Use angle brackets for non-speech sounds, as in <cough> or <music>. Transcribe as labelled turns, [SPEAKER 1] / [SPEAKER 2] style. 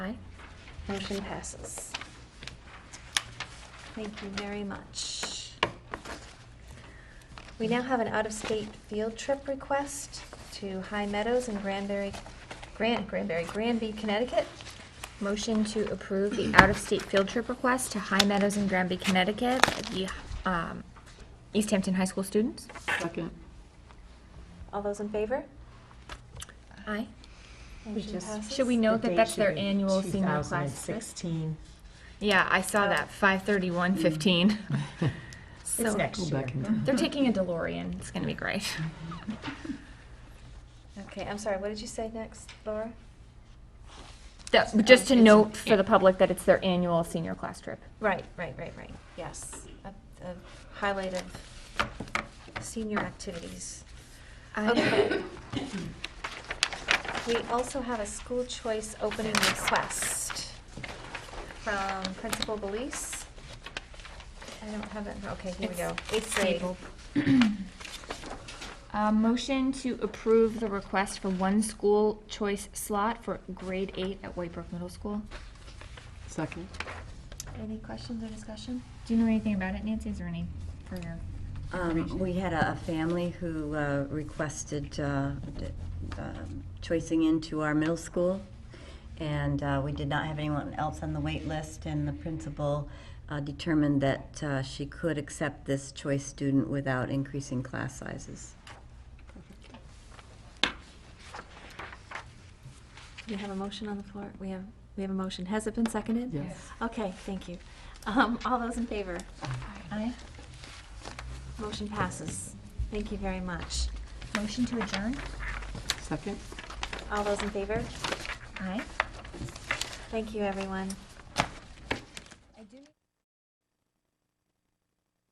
[SPEAKER 1] Motion passes. Thank you very much. We now have an out-of-state field trip request to High Meadows in Granbury, Gran, Granbury, Granby, Connecticut.
[SPEAKER 2] Motion to approve the out-of-state field trip request to High Meadows in Granby, Connecticut, the um, East Hampton High School students.
[SPEAKER 3] Second.
[SPEAKER 1] All those in favor?
[SPEAKER 2] Aye.
[SPEAKER 3] We
[SPEAKER 1] Motion
[SPEAKER 3] just-
[SPEAKER 1] passes.
[SPEAKER 2] Should we note that
[SPEAKER 3] The date
[SPEAKER 2] that's
[SPEAKER 3] should
[SPEAKER 2] their
[SPEAKER 3] be
[SPEAKER 2] annual senior class? list?
[SPEAKER 3] 2016.
[SPEAKER 2] Yeah, I saw that, 5:31:15.
[SPEAKER 3] It's
[SPEAKER 2] So
[SPEAKER 3] next
[SPEAKER 4] Go
[SPEAKER 3] year.
[SPEAKER 4] back in time.
[SPEAKER 2] <laughs> they're taking a DeLorean. It's going to be great.
[SPEAKER 1] Okay, I'm sorry, what did you say next, Laura?
[SPEAKER 2] That- Just to note for the public that it's their annual senior class trip.
[SPEAKER 1] Right, right, right, right, yes. A- a Highlight of senior activities. Okay. We also have a school choice opening request from Principal Belize. I don't have it, okay, here we go. Eighth grade.
[SPEAKER 2] <clears throat> A Uh, motion to approve the request for one school choice slot for grade eight at Whitebrook Middle School.
[SPEAKER 3] Second.
[SPEAKER 1] Any questions or discussion?
[SPEAKER 2] Do you know anything about it, Nancy? Is there any further?
[SPEAKER 5] Um, we had a, a family who uh, requested uh, d- um, choicing into our middle school, and uh, we did not have anyone else on the wait list. And the principal uh, determined that uh, she could accept this choice student without increasing class sizes.
[SPEAKER 1] We have a motion on the floor, we have, we have a motion. Has it been seconded?
[SPEAKER 3] Yes.
[SPEAKER 1] Okay, thank you. Um, all those in favor?
[SPEAKER 2] Aye.
[SPEAKER 1] Motion passes. Thank you very much.
[SPEAKER 2] Motion to adjourn?
[SPEAKER 3] Second.
[SPEAKER 1] All those in favor?
[SPEAKER 2] Aye.
[SPEAKER 1] Thank you, everyone.